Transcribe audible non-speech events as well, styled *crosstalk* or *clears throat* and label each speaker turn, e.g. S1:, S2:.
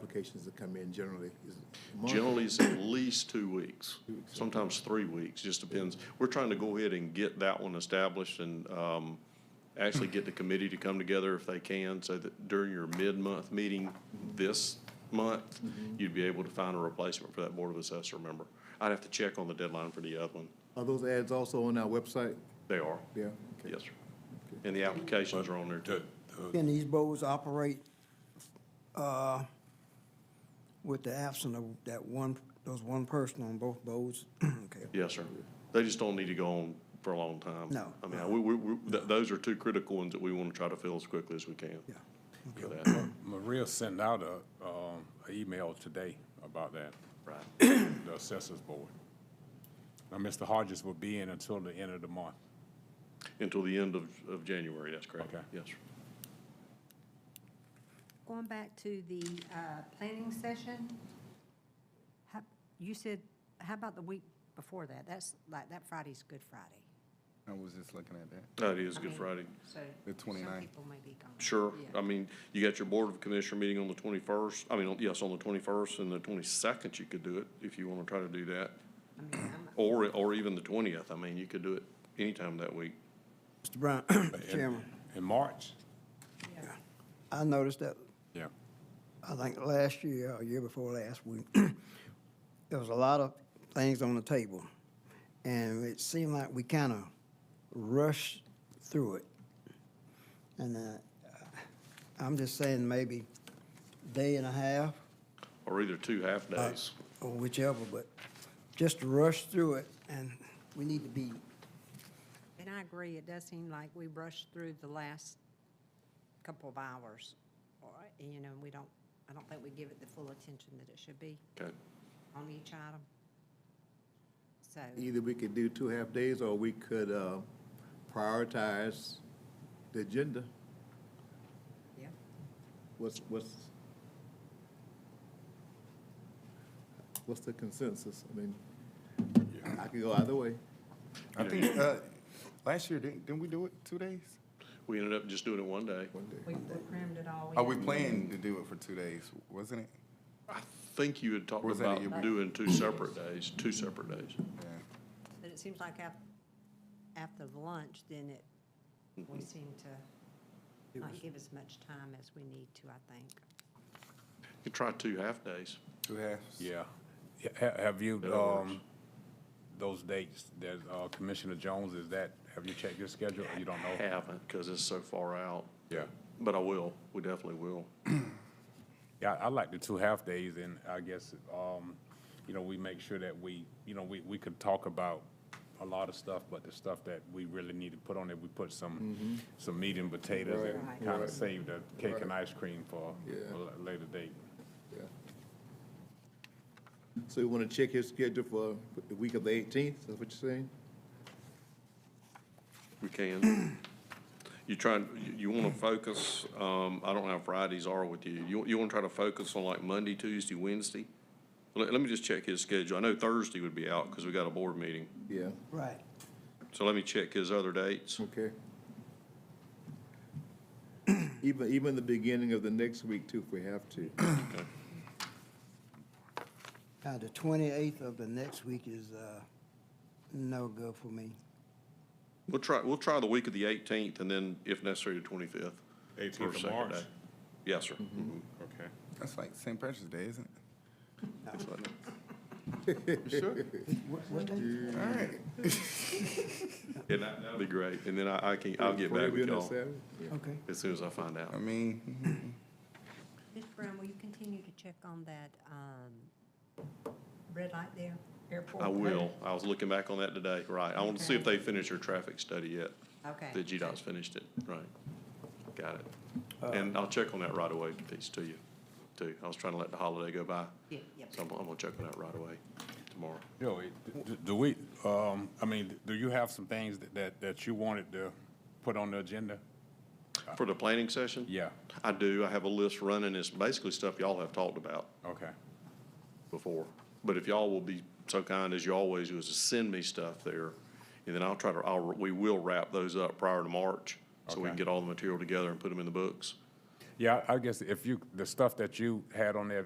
S1: applications that come in generally is a month.
S2: Generally, it's at least two weeks, sometimes three weeks, just depends. We're trying to go ahead and get that one established and um, actually get the committee to come together if they can, so that during your mid-month meeting this month, you'd be able to find a replacement for that Board of Assessor member. I'd have to check on the deadline for the other one.
S1: Are those ads also on our website?
S2: They are,
S1: Yeah. okay.
S2: yes, sir. And the applications are on there too.
S3: Can these boards operate uh, with the absence of that one, those one person on both boards? *clears throat* Okay.
S2: Yes, sir. They just don't need to go on for a long time.
S3: No.
S2: I mean, we, we, we- th- those are two critical ones that we want to try to fill as quickly as we can.
S3: Yeah.
S2: for that.
S4: Maria sent out a, um, a email today about that, *coughs*
S2: Right.
S4: the assessors board. Now, Mr. Hodges will be in until the end of the month.
S2: *clears throat* Until the end of, of January, that's correct.
S4: Okay.
S2: Yes, sir.
S5: Going back to the uh, planning session, how- you said, how about the week before that? That's like, that Friday's Good Friday.
S6: I was just looking at that.
S2: That is
S5: I
S2: Good
S5: mean,
S2: Friday.
S5: So
S6: The 29th.
S5: Some people may be gone.
S2: Sure.
S5: Yeah.
S2: I mean, you got your Board of Commissioner meeting on the twenty-first, I mean, on- yes, on the twenty-first and the twenty-second, you could do it if you want to try to do that.
S5: I mean, I'm-
S2: Or, or even the twentieth. I mean, you could do it anytime that week.
S3: Mr. Brown, *clears throat*
S4: In-
S3: Mr. Chairman,
S4: In March.
S3: I noticed that,
S4: Yeah.
S3: I think last year, or year before last, we, *clears throat* there was a lot of things on the table. And it seemed like we kind of rushed through it. And uh, I'm just saying maybe day and a half,
S2: Or either two half-days.
S3: or whichever, but just to rush through it, and we need to be,
S5: And I agree, it does seem like we rushed through the last couple of hours. or, You know, we don't, I don't think we give it the full attention that it should be
S2: Okay.
S5: on each item. So,
S1: Either we could do two half days or we could, uh, prioritize the agenda.
S5: yeah.
S1: What's, what's, what's the consensus? I mean, I could go either way.
S6: I think, uh, last year, didn't, didn't we do it two days?
S2: We ended up just doing it one day.
S1: One day.
S5: We we crammed it all in.
S6: Are Oh, we planning to do it for two days, wasn't it?
S2: I think you had talked
S6: Was that
S2: about
S6: you-
S2: doing two separate days, two separate days.
S6: Yeah.
S5: But it seems like af- after lunch, then it, we seem to not give as much time as we need to, I think.
S2: You try two half-days.
S6: Two halves?
S4: Yeah. Ha- Have you,
S2: That works.
S4: um, those dates that uh, Commissioner Jones is that, have you checked your schedule? or You don't know?
S2: Haven't, because it's so far out.
S4: Yeah.
S2: But I will, we definitely will.
S4: Yeah, I I like the two half days and I guess, um, you know, we make sure that we, you know, we, we could talk about a lot of stuff, but the stuff that we really need to put on it, we put some, some meat and potatoes
S5: Mm-hmm. Right.
S4: and kind of save the cake and ice cream for
S1: Yeah.
S4: a la- later date.
S1: Yeah. So you want to check his schedule for the week of the eighteenth, is that what you're saying?
S2: We can. *clears throat* You try, and- you- you want to focus, um, I don't know how Fridays are with you. You, you want to try to focus on like Monday, Tuesday, Wednesday? Let, let me just check his schedule. I know Thursday would be out because we got a board meeting.
S1: Yeah,
S3: right,
S2: So let me check his other dates.
S1: okay. *clears throat* Even, even the beginning of the next week too, if we have to.
S3: now the twenty-eighth of the next week is, uh, no good for me.
S2: We'll try, we'll try the week of the eighteenth and then if necessary, the twenty-fifth.
S4: 18th of March.
S2: Yes, sir.
S4: Okay.
S6: That's like St. Patrick's Day, isn't it?
S3: What, what day?
S2: And that, that'd be great. And then I, I can, I'll get
S1: Probably doing
S2: back with
S1: that
S2: y'all
S1: Saturday? Yeah.
S3: Okay,
S2: as soon as I find out.
S6: I mean, mm-hmm.
S5: Ms. Brown, will you continue to check on that um, red light there, airport?
S2: I will.
S5: code?
S2: I was looking back on that today, right. I want to see if they finished their traffic study yet.
S5: Okay.
S2: The GDOT's finished it, right. Got it. And I'll check on that right away piece to you, too. I was trying to let the holiday go by.
S5: Yeah, yep.
S2: So I'm, I'm gonna check on that right away tomorrow.
S4: Yo, it- d- do we, um, I mean, do you have some things that- that, that you wanted to put on the agenda?
S2: For the planning session?
S4: Yeah,
S2: I do. I have a list running. It's basically stuff y'all have talked about
S4: okay.
S2: before. But if y'all will be so kind as you always do is to send me stuff there. And then I'll try to, I'll, we will wrap those up prior to March. So we can
S4: Okay.
S2: get all the material together and put them in the books.
S4: Yeah, I I guess if you, the stuff that you had on there,